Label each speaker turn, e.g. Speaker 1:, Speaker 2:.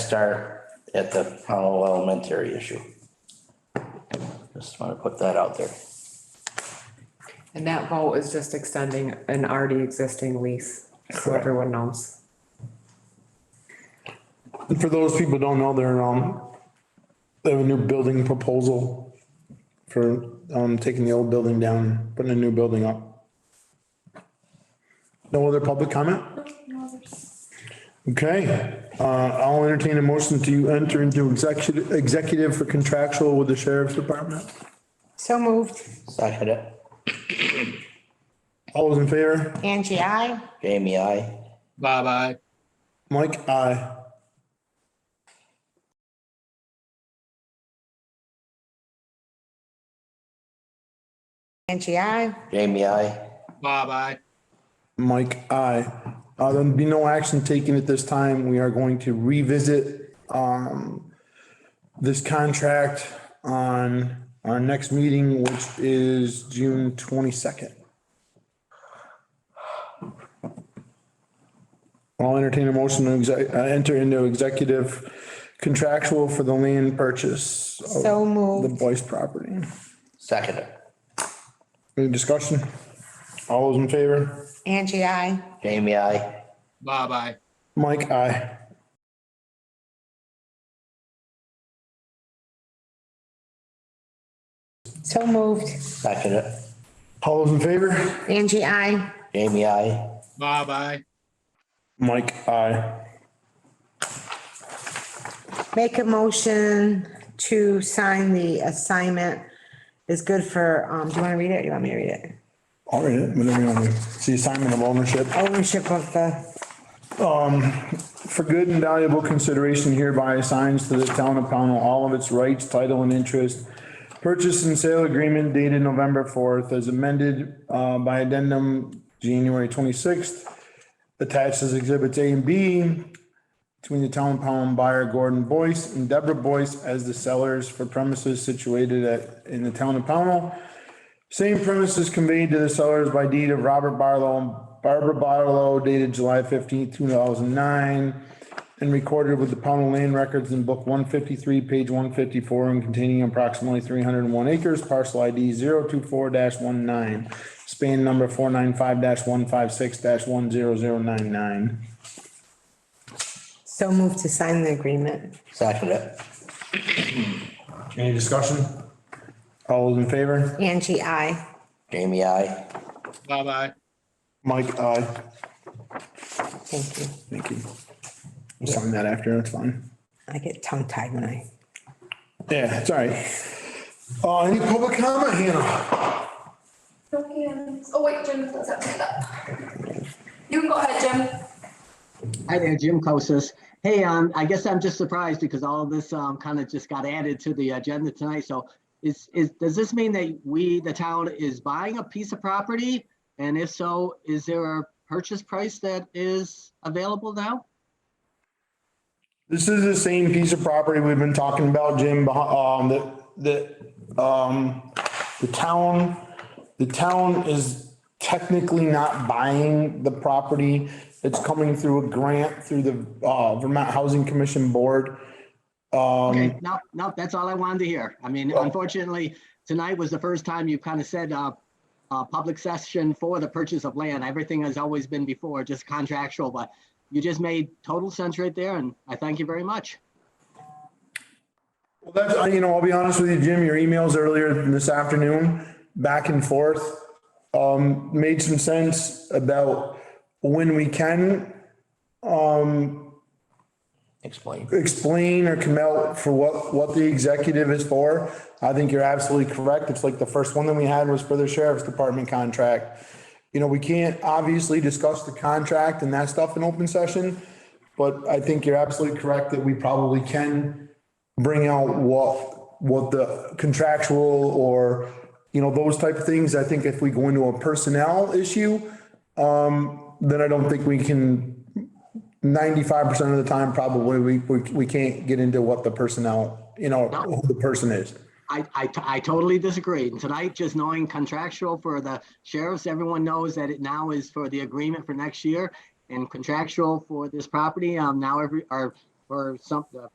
Speaker 1: start at the Powell Elementary issue. Just want to put that out there.
Speaker 2: And that vote is just extending an already existing lease, so
Speaker 1: Correct.
Speaker 2: everyone knows.
Speaker 3: For those people who don't know, they're, um, they have a new building proposal for, um, taking the old building down, putting a new building up. No other public comment? Okay, uh, I'll entertain a motion to enter into executive, executive for contractual with the sheriff's department.
Speaker 4: So moved.
Speaker 1: Second it,
Speaker 3: All those in favor?
Speaker 4: Angie, I.
Speaker 1: Jamie, I.
Speaker 5: Bye bye.
Speaker 3: Mike, aye.
Speaker 4: Angie, I.
Speaker 1: Jamie, I.
Speaker 5: Bye bye.
Speaker 3: Mike, aye. Uh, there'll be no action taken at this time. We are going to revisit, um, this contract on our next meeting, which is June twenty-second. I'll entertain a motion to exec, uh, enter into executive contractual for the land purchase of
Speaker 4: So
Speaker 3: the
Speaker 4: moved.
Speaker 3: Boyce property.
Speaker 1: Second it,
Speaker 3: Any discussion? All those in favor?
Speaker 4: Angie, I.
Speaker 1: Jamie, I.
Speaker 5: Bye bye.
Speaker 3: Mike, aye.
Speaker 4: So moved.
Speaker 1: Second it,
Speaker 3: All those in favor?
Speaker 4: Angie, I.
Speaker 1: Jamie, I.
Speaker 5: Bye bye.
Speaker 3: Mike, aye.
Speaker 4: Make a motion to sign the assignment is good for, um, do you want to read it? or You want me to read it?
Speaker 3: All right, whatever you want to, it's the assignment of ownership.
Speaker 4: Ownership of the,
Speaker 3: For good and valuable consideration hereby assigns to the town of Pownell all of its rights, title and interest. Purchase and sale agreement dated November fourth as amended, uh, by addendum January twenty-sixth. Attached as exhibits A and B between the town of Pownell buyer Gordon Boyce and Deborah Boyce as the sellers for premises situated at, in the town of Pownell. Same premises conveyed to the sellers by deed of Robert Barlow and Barbara Barlow dated July fifteenth, two thousand nine, and recorded with the Pownell Land Records in book one fifty-three, page one fifty-four, and containing approximately three hundred and one acres, parcel ID 24 one nine, span number four nine five one five six one zero zero nine nine.
Speaker 4: so moved to sign the agreement.
Speaker 1: Second it,
Speaker 3: Any discussion? All those in favor?
Speaker 4: Angie, I.
Speaker 1: Jamie, I.
Speaker 5: Bye bye.
Speaker 3: Mike, aye.
Speaker 4: Thank you.
Speaker 3: Thank you. We'll Sign that after, that's fine.
Speaker 4: I get tongue tied when I.
Speaker 3: Yeah, it's all right. Uh, any public comment, Hannah?
Speaker 6: Okay, um, oh wait, Jim, let's have that. You can go ahead, Jim.
Speaker 7: Hi there, Jim Kosis. Hey, um, I guess I'm just surprised because all of this, um, kind of just got added to the agenda tonight. So is, is, does this mean that we, the town is buying a piece of property? And if so, is there a purchase price that is available now?
Speaker 3: This is the same piece of property we've been talking about, Jim, beh- um, that, that, um, the town, the town is technically not buying the property. It's coming through a grant through the, uh, Vermont Housing Commission Board. Um,
Speaker 7: Okay,
Speaker 3: Mm.
Speaker 7: no, no, that's all I wanted to hear. I mean, unfortunately, tonight was the first time you kind of said, uh, uh, public session for the purchase of land. Everything has always been before, just contractual, but you just made total sense right there and I thank you very much.
Speaker 3: Well, that's, I- you know, I'll be honest with you, Jim, your emails earlier this afternoon, back and forth, um, made some sense about when we can
Speaker 1: Explain.
Speaker 3: explain or come out for what, what the executive is for. I think you're absolutely correct. It's like the first one that we had was for the sheriff's department contract. You know, we can't obviously discuss the contract and that stuff in open session, but I think you're absolutely correct that we probably can bring out what, what the contractual or, you know, those type of things. I think if we go into a personnel issue, um, then I don't think we can ninety-five percent of the time, probably, we, we, we can't get into what the personnel, you know, who the person is.
Speaker 7: I, I, t- I totally disagree. And tonight, just knowing contractual for the sheriffs, everyone knows that it now is for the agreement for next year and contractual for this property. Um, now every, or or something,